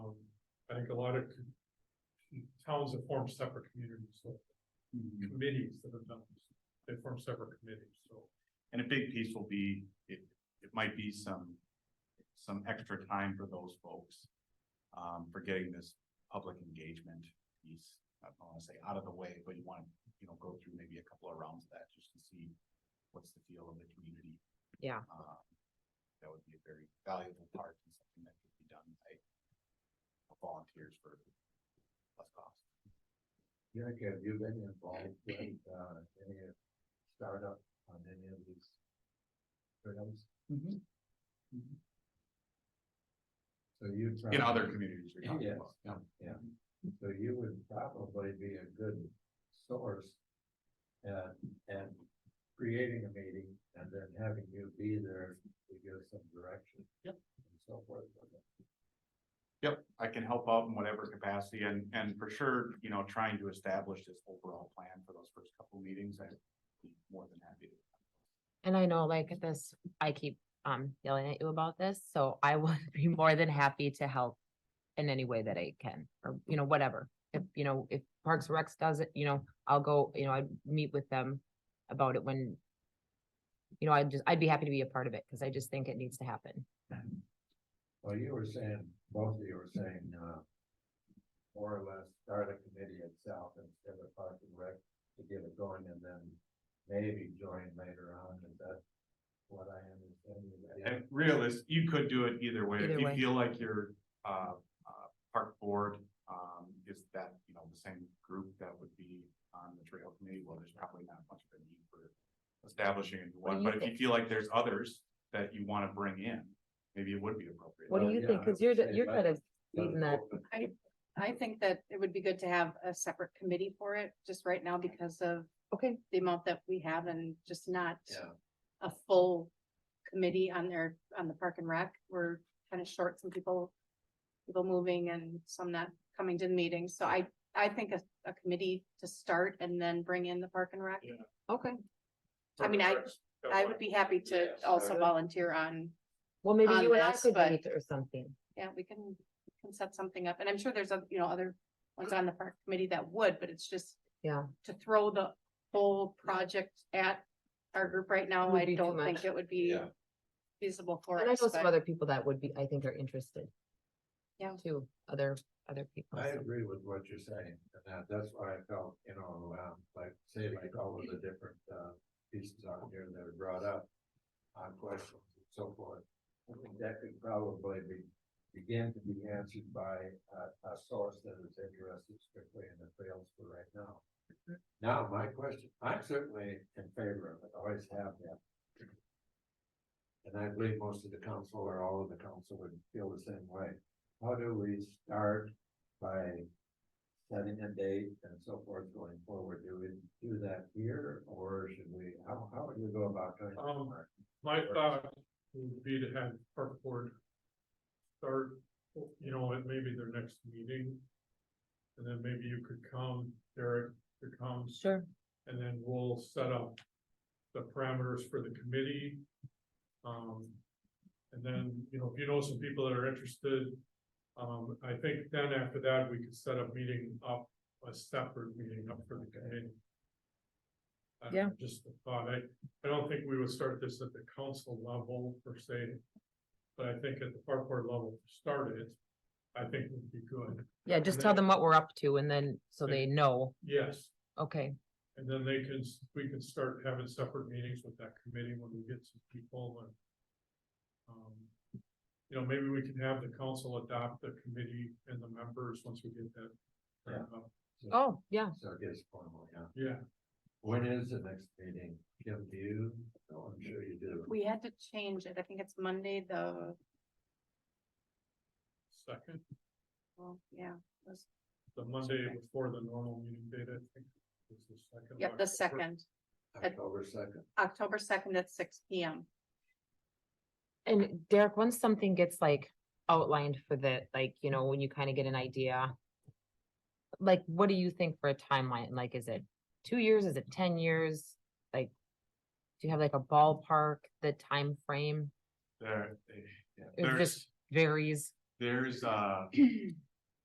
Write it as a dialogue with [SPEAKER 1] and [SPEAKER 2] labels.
[SPEAKER 1] Um, think a lot of c- towns have formed separate communities, so Mm-hmm. committees that have done, this. they form separate committees, so.
[SPEAKER 2] And a big piece will be, it, it might be some, some extra time for those folks. Um, for getting this public engagement piece, I don't wanna say out of the way, but you wanna, you know, go through maybe a couple of rounds of that just to see. What's the feel of the community?
[SPEAKER 3] Yeah.
[SPEAKER 2] Um, That would be a very valuable part and something that could be done by volunteers for less cost.
[SPEAKER 4] Jack, have you been involved with, uh, any of startup on any of these? Programs, so you.
[SPEAKER 2] In other communities you're talking
[SPEAKER 4] Yes,
[SPEAKER 2] about. yeah.
[SPEAKER 4] yeah, so you would probably be a good source. And, and creating a meeting and then having you be there to give some direction.
[SPEAKER 2] Yep.
[SPEAKER 4] And so forth.
[SPEAKER 2] Yep, I can help out in whatever capacity and, and for sure, you know, trying to establish this overall plan for those first couple meetings, I'd be more than happy to.
[SPEAKER 3] And I know like this, I keep um yelling at you about this, so I would be more than happy to help in any way that I can, or you know, whatever. If, you know, if Parks and Recs does it, you know, I'll go, you know, I'd meet with them about it when you know, I'd just, I'd be happy to be a part of it, because I just think it needs to happen.
[SPEAKER 4] Well, you were saying, both of you were saying, uh. More or less start a committee itself instead of park and rec to get it going and then maybe join later on, is that what I understand? you guys?
[SPEAKER 2] And realist, you could do it either way. If
[SPEAKER 3] Either
[SPEAKER 2] you
[SPEAKER 3] way.
[SPEAKER 2] feel like your, uh, uh, park board, um, is that, you know, the same group that would be on the trail committee, well, there's probably not much of a need for establishing a new
[SPEAKER 3] What do
[SPEAKER 2] one,
[SPEAKER 3] you
[SPEAKER 2] but if you
[SPEAKER 3] think?
[SPEAKER 2] feel like there's others that you wanna bring in, maybe it would be appropriate.
[SPEAKER 4] What do Well, you Oh, yeah, think? I 'Cause would you're the- say you're that- kind
[SPEAKER 3] of
[SPEAKER 5] I think that it would be good to have a separate committee for it, just right now because of
[SPEAKER 3] Okay,
[SPEAKER 5] the amount that we have and just not
[SPEAKER 4] Yeah.
[SPEAKER 5] a full committee on their, on the park and rec. We're kind of short, some people, people moving and some not coming to the meetings. So I, I think a, a committee to start and then bring in the park and rec.
[SPEAKER 1] Yeah.
[SPEAKER 3] okay.
[SPEAKER 5] I mean, I-
[SPEAKER 1] That's
[SPEAKER 5] I
[SPEAKER 1] why-
[SPEAKER 5] would be happy to
[SPEAKER 4] Yeah,
[SPEAKER 5] also
[SPEAKER 4] start it.
[SPEAKER 5] volunteer on,
[SPEAKER 3] Well, maybe
[SPEAKER 5] On
[SPEAKER 3] you and I
[SPEAKER 5] this,
[SPEAKER 3] could
[SPEAKER 5] but-
[SPEAKER 3] meet or something.
[SPEAKER 5] yeah, we can, we can set something up. And I'm sure there's, oth- you know, other ones on the park committee that would, but it's just
[SPEAKER 3] Yeah,
[SPEAKER 5] to throw the whole project at our group right now,
[SPEAKER 3] Would
[SPEAKER 5] I
[SPEAKER 3] be too
[SPEAKER 5] don't
[SPEAKER 3] much.
[SPEAKER 5] think it would be
[SPEAKER 4] Yeah.
[SPEAKER 5] feasible for
[SPEAKER 3] and I know some
[SPEAKER 5] us. but-
[SPEAKER 3] other people that would be, I think are interested.
[SPEAKER 5] Yeah.
[SPEAKER 3] Too, other, other people.
[SPEAKER 4] I
[SPEAKER 3] so.
[SPEAKER 4] agree with what you're saying, and that, that's why I felt, you know, um, like, say like all of the different, uh, pieces on here that are brought up. On questions and so forth, I think that could probably be, begin to be answered by a, a source that is interested strictly in the trails for right now. Now, my question, I'm certainly in favor of it, always have been. And I believe most of the council or all of the council would feel the same way. How do we start by setting a date and so forth going forward? Do we do that here or should we, how, how would we go about doing? that,
[SPEAKER 1] Um,
[SPEAKER 4] Mark?
[SPEAKER 1] My thought would be to have park board start, you know, at maybe their next meeting. And then maybe you could come, Derek, to come,
[SPEAKER 3] Sure.
[SPEAKER 1] and then we'll set up the parameters for the committee. Um, and then, you know, if you know some people that are interested, um, I think then after that, we could set a meeting up, a separate meeting up for the committee. I don't know, Just a thought, I, I don't think we would start this at the council level per se, but I think at the park board level, start it, I think would be good,
[SPEAKER 3] Yeah, just tell them what we're up to and then, so they know,
[SPEAKER 1] yes.
[SPEAKER 3] okay,
[SPEAKER 1] And then they can, s- we can start having separate meetings with that committee when we get some people and. um, You know, maybe we can have the council adopt the committee and the members once we get that.
[SPEAKER 4] Yeah.
[SPEAKER 1] uh,
[SPEAKER 3] oh, yeah,
[SPEAKER 4] So it is formal, yeah.
[SPEAKER 1] Yeah,
[SPEAKER 4] When is the next meeting? Kim, do you? No, I'm sure you do.
[SPEAKER 5] We had to change it. I think it's Monday, the,
[SPEAKER 1] second,
[SPEAKER 5] well, yeah. it was-
[SPEAKER 1] the Monday before the normal meeting date, I think. is the second of
[SPEAKER 5] Yep, the
[SPEAKER 1] October.
[SPEAKER 5] second,
[SPEAKER 4] October second.
[SPEAKER 5] October second at six P M.
[SPEAKER 3] and Derek, once something gets like outlined for the, like, you know, when you kind of get an idea. Like, what do you think for a timeline, like, is it two years, is it ten years, like? Do you have like a ballpark, the time frame
[SPEAKER 2] There, eh,
[SPEAKER 3] It
[SPEAKER 2] there's.
[SPEAKER 3] just varies,
[SPEAKER 2] There's, uh,